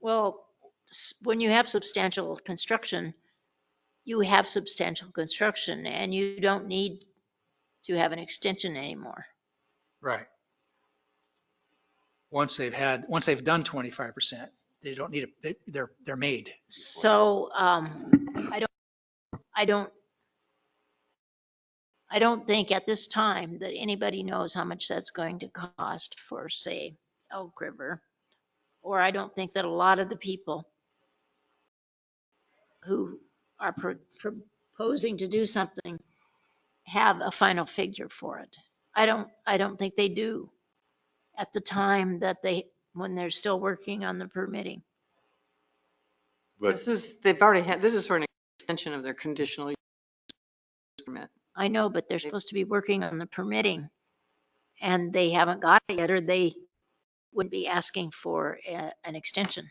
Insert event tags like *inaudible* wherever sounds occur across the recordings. Well, s- when you have substantial construction, you have substantial construction and you don't need to have an extension anymore. Right. Once they've had, once they've done 25%, they don't need, a- they- they're, they're made. So, um, I don't, I don't, I don't think at this time that anybody knows how much that's going to cost for, say, Elk River. Or I don't think that a lot of the people who are pro- proposing to do something have a final figure for it. I don't, I don't think they do at the time that they, when they're still working on the permitting. This is, they've already had, this is for an extension of their conditional use permit. I know, but they're supposed to be working on the permitting and they haven't got it yet, or they would be asking for a- an extension.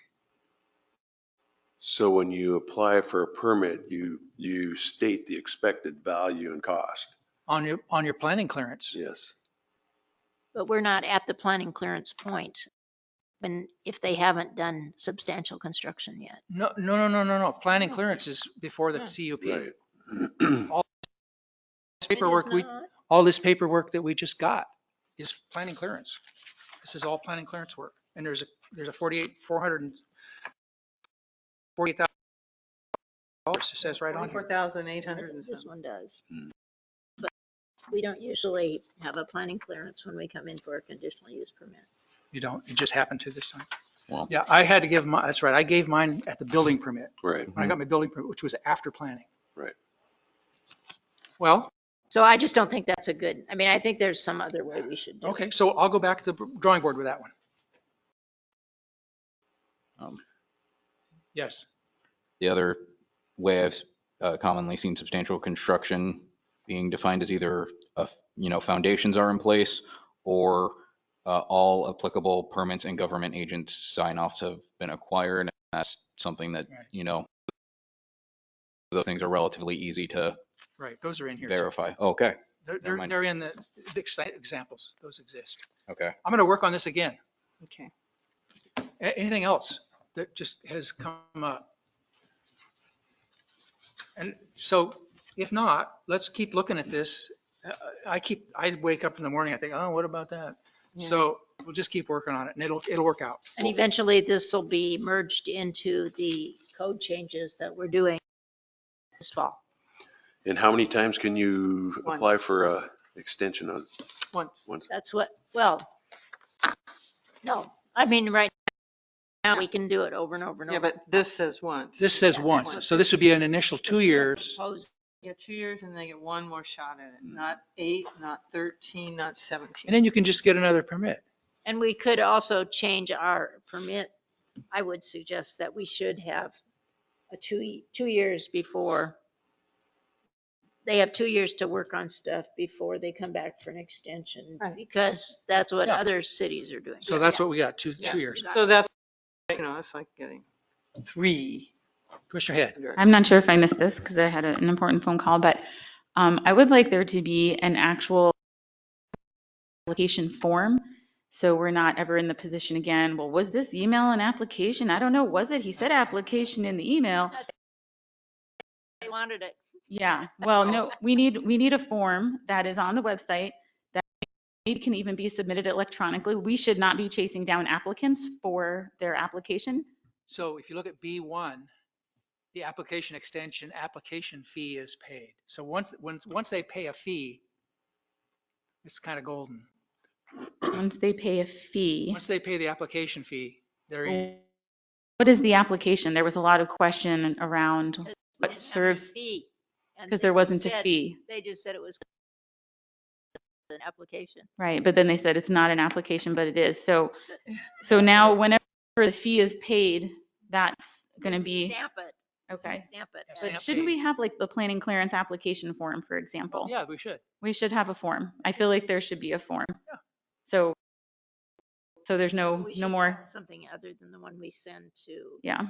So when you apply for a permit, you, you state the expected value and cost. On your, on your planning clearance, Yes. But we're not at the planning clearance point. And if they haven't done substantial construction yet, no, no, no, no, no, no. Planning clearance is before the CUP. Right. *clears throat* This Paperwork, we, all this paperwork that we just got is planning clearance. This is all planning clearance work. And there's a, there's a 48, 400 and 48,000 dollars, it says right on Twenty-four here. thousand eight This hundred and this something. one does. Hmm. But we don't usually have a planning clearance when we come in for a conditional use permit. You don't, it just happened to this time. Wow. Yeah, I had to give my, that's right, I gave mine at the building permit. Right. when I Mm-hmm. got my building permit, which was after planning. Right. Well, So I just don't think that's a good, I mean, I think there's some other way we should do it. okay, so I'll go back to the drawing board with that one. Um, Yes, The other way I've uh, commonly seen substantial construction being defined as either, a f- you know, foundations are in place or uh, all applicable permits and government agents sign offs have been acquired. And That's something that, Right. you know, those things are relatively easy to right, those are in here. too. verify. Okay, They're, never they're, mind. they're in the the ex- examples, those exist. okay. I'm gonna work on this again. Okay. A- Anything else that just has come up? And so if not, let's keep looking at this. Uh, I keep, I wake up in the morning, I think, oh, what about that? Yeah. So we'll just keep working on it and it'll, it'll work out. And eventually this will be merged into the code changes that we're doing this fall. And how many times can you apply Once. for a extension on, Once. once? That's what, well, no, I mean, right now, we can do it over and over and Yeah, over. but this says once. This says Yeah, once, once. so this would be an initial two This is a years. proposed- Yeah, two years and they get one more shot at it. Not eight, not 13, not 17. And then you can just get another permit. And we could also change our permit. I would suggest that we should have a two, two years before. They have two years to work on stuff before they come back for an extension, Right. because that's what Yeah. other cities are doing. So that's what we got, two, two years. So that's, you know, it's like getting three. Commissioner Head, under- I'm not sure if I missed this because I had a- an important phone call, but um, I would like there to be an actual application form. So we're not ever in the position again, well, was this email an application? I don't know, was it? He said application in the email. They wanted it. Yeah, well, no, we need, we need a form that is on the website that it can even be submitted electronically. We should not be chasing down applicants for their application. so if you look at B1, the application extension, application fee is paid. So once, once, once they pay a fee, it's kind of golden. Once they pay a fee. Once they pay the application fee, they're in. What is the application? There was a lot of question around They what didn't have any serves, fee, and because they there just wasn't a said- fee, They just said it was an application. right? But then they said it's not an application, but it is. So, so now whenever the fee is paid, that's going to We be, Stamp it, okay. stamp it. Yeah, and- stamp But shouldn't we have like the planning clearance application form, for example? Yeah, we should. We should have a form. I feel like there should be a form. So, so there's no, we should no have more, Something other than the one we send to. yeah.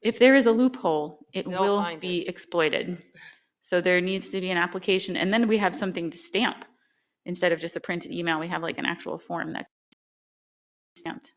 If there is a loophole, it They'll will find it. be exploited. So there needs to be an application and then we have something to stamp. Instead of just a printed email, we have like an actual form that stamped.